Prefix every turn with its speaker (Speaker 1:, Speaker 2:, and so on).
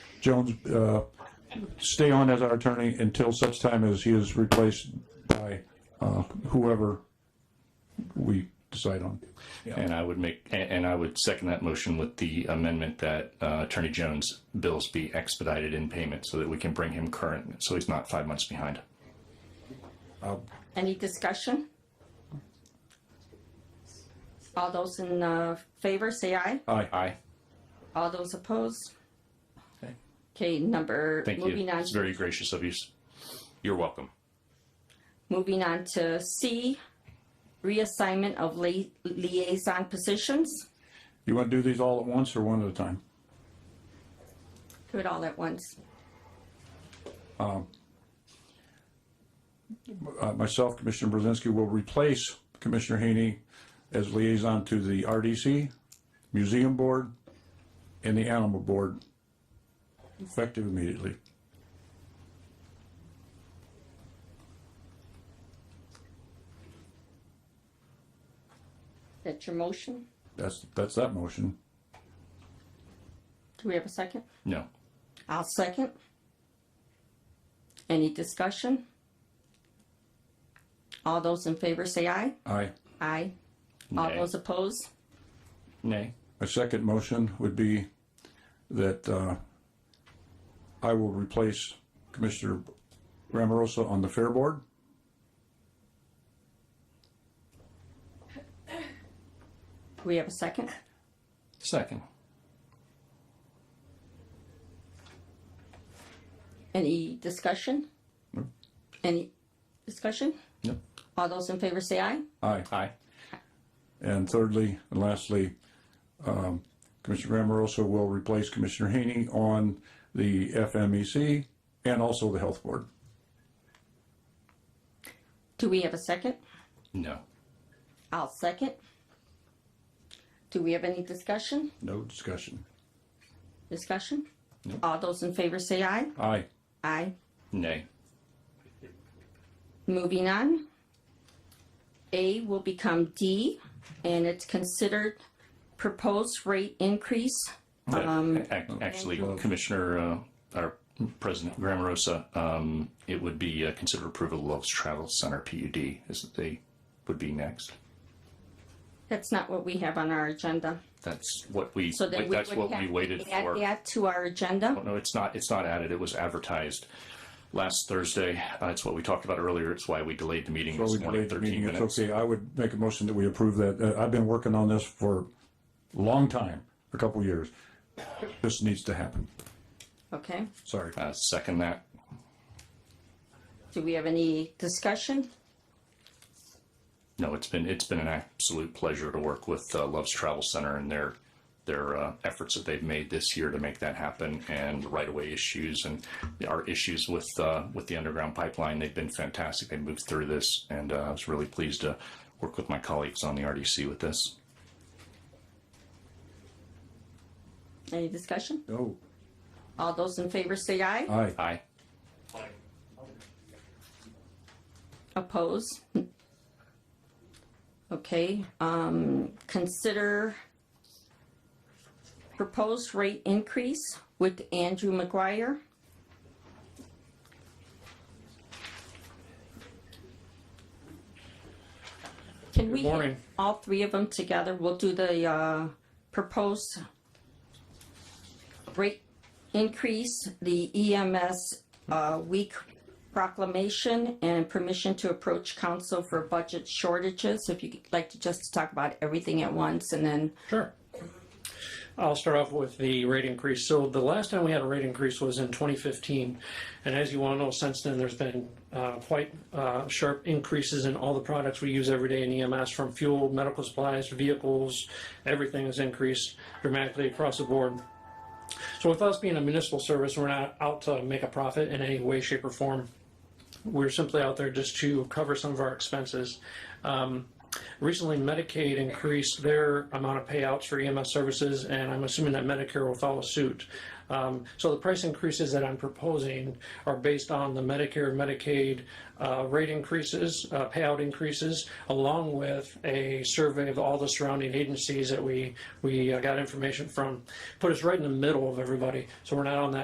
Speaker 1: Jones uh, stay on as our attorney until such time as he is replaced by uh, whoever we decide on.
Speaker 2: And I would make, and and I would second that motion with the amendment that uh, Attorney Jones' bills be expedited in payment so that we can bring him current, so he's not five months behind.
Speaker 3: Any discussion? All those in uh, favor, say aye.
Speaker 1: Aye.
Speaker 2: Aye,
Speaker 3: All those opposed?
Speaker 2: Okay.
Speaker 3: Okay, number,
Speaker 2: thank you.
Speaker 3: moving on,
Speaker 2: It's very gracious of you. You're welcome.
Speaker 3: moving on to C, reassignment of lia- liaison positions.
Speaker 1: You want to do these all at once or one at a time?
Speaker 3: Do it all at once.
Speaker 1: Uh, Myself, Commissioner Brzezinski will replace Commissioner Haney as liaison to the RDC, Museum Board, and the Animal Board, effective immediately.
Speaker 3: That's your motion.
Speaker 1: That's, that's that motion.
Speaker 3: Do we have a second?
Speaker 2: No,
Speaker 3: I'll second. Any discussion? All those in favor, say aye.
Speaker 1: Aye.
Speaker 3: Aye. All
Speaker 2: Nay.
Speaker 3: those opposed?
Speaker 2: nay.
Speaker 1: My second motion would be that uh, I will replace Commissioner Ramorosa on the Fair Board.
Speaker 3: Do we have a second?
Speaker 2: Second.
Speaker 3: Any discussion? Any discussion?
Speaker 2: Yep.
Speaker 3: All those in favor say aye.
Speaker 1: Aye.
Speaker 2: Aye.
Speaker 1: And thirdly, and lastly, um, Commissioner Ramorosa will replace Commissioner Haney on the FMEC and also the Health Board.
Speaker 3: Do we have a second?
Speaker 2: No.
Speaker 3: I'll second. Do we have any discussion?
Speaker 1: No discussion.
Speaker 3: Discussion? All those in favor say aye.
Speaker 1: Aye.
Speaker 3: Aye.
Speaker 2: Nay.
Speaker 3: Moving on. A will become D, and it's considered proposed rate increase. Um,
Speaker 2: Ac- Actually, Commissioner, uh, our President Grammarosa, um, it would be uh, considered approval of Love's Travel Center PUD is they would be next.
Speaker 3: that's not what we have on our agenda.
Speaker 2: That's what we,
Speaker 3: So then we
Speaker 2: that's
Speaker 3: would
Speaker 2: what we
Speaker 3: have
Speaker 2: waited
Speaker 3: to add
Speaker 2: for.
Speaker 3: that to our agenda.
Speaker 2: No, it's not, it's not added. It was advertised last Thursday. Uh, It's what we talked about earlier. It's why we delayed the meeting
Speaker 1: Well,
Speaker 2: this
Speaker 1: we
Speaker 2: morning,
Speaker 1: delayed the
Speaker 2: thirteen
Speaker 1: meeting. It's okay.
Speaker 2: minutes.
Speaker 1: I would make a motion that we approve that. Uh, I've been working on this for a long time, a couple years. This needs to happen.
Speaker 3: Okay.
Speaker 1: Sorry.
Speaker 2: Uh, Second that.
Speaker 3: Do we have any discussion?
Speaker 2: No, it's been, it's been an absolute pleasure to work with uh, Love's Travel Center and their, their uh, efforts that they've made this year to make that happen and the right-of-way issues and our issues with, uh, with the underground pipeline. They've been fantastic. They moved through this and uh, I was really pleased to work with my colleagues on the RDC with this.
Speaker 3: Any discussion?
Speaker 1: No.
Speaker 3: All those in favor say aye.
Speaker 1: Aye.
Speaker 2: Aye.
Speaker 3: Oppose? Okay, um, consider proposed rate increase with Andrew McGuire. Can we hit
Speaker 4: morning.
Speaker 3: all three of them together? We'll do the, uh, proposed rate increase, the EMS, uh, week proclamation and permission to approach council for budget shortages. If you'd like to just talk about everything at once and then,
Speaker 4: Sure. I'll start off with the rate increase. So the last time we had a rate increase was in 2015. And as you all know, since then, there's been uh, quite uh, sharp increases in all the products we use every day in EMS, from fuel, medical supplies, vehicles, everything has increased dramatically across the board. So with us being a municipal service, we're not out to make a profit in any way, shape, or form. We're simply out there just to cover some of our expenses. Um, Recently, Medicaid increased their amount of payouts for EMS services, and I'm assuming that Medicare will follow suit. Um, so the price increases that I'm proposing are based on the Medicare and Medicaid uh, rate increases, uh, payout increases, along with a survey of all the surrounding agencies that we we uh, got information from. Put us right in the middle of everybody, so we're not on that